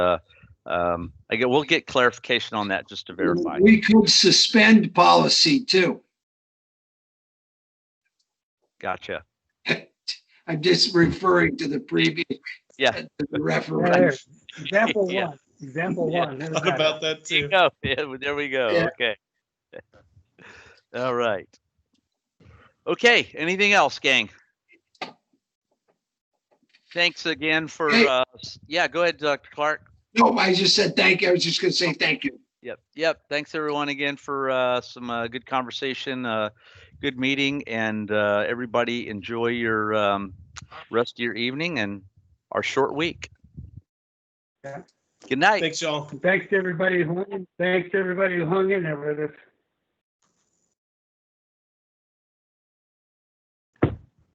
uh, um, I get, we'll get clarification on that just to verify. We could suspend policy too. Gotcha. I'm just referring to the previous. Yeah. to The referendum. There, Example Yeah. one, example Yeah. one. there's Thought that. about that There you too. go. Oh, Yeah, well, there we go. Yeah. Okay. All right. Okay. Anything else, gang? Thanks again for, Hey. uh, s- yeah, go ahead, Dr. Clark. No, I just said thank you. I was just gonna say thank you. Yep. Yep. Thanks everyone again for, uh, some, uh, good conversation, uh, good meeting and, uh, everybody enjoy your, um, rest of your evening and our short week. Yeah. Good night. Thanks, y'all. Thanks to everybody who, hung in- thanks to everybody who hung in there with us.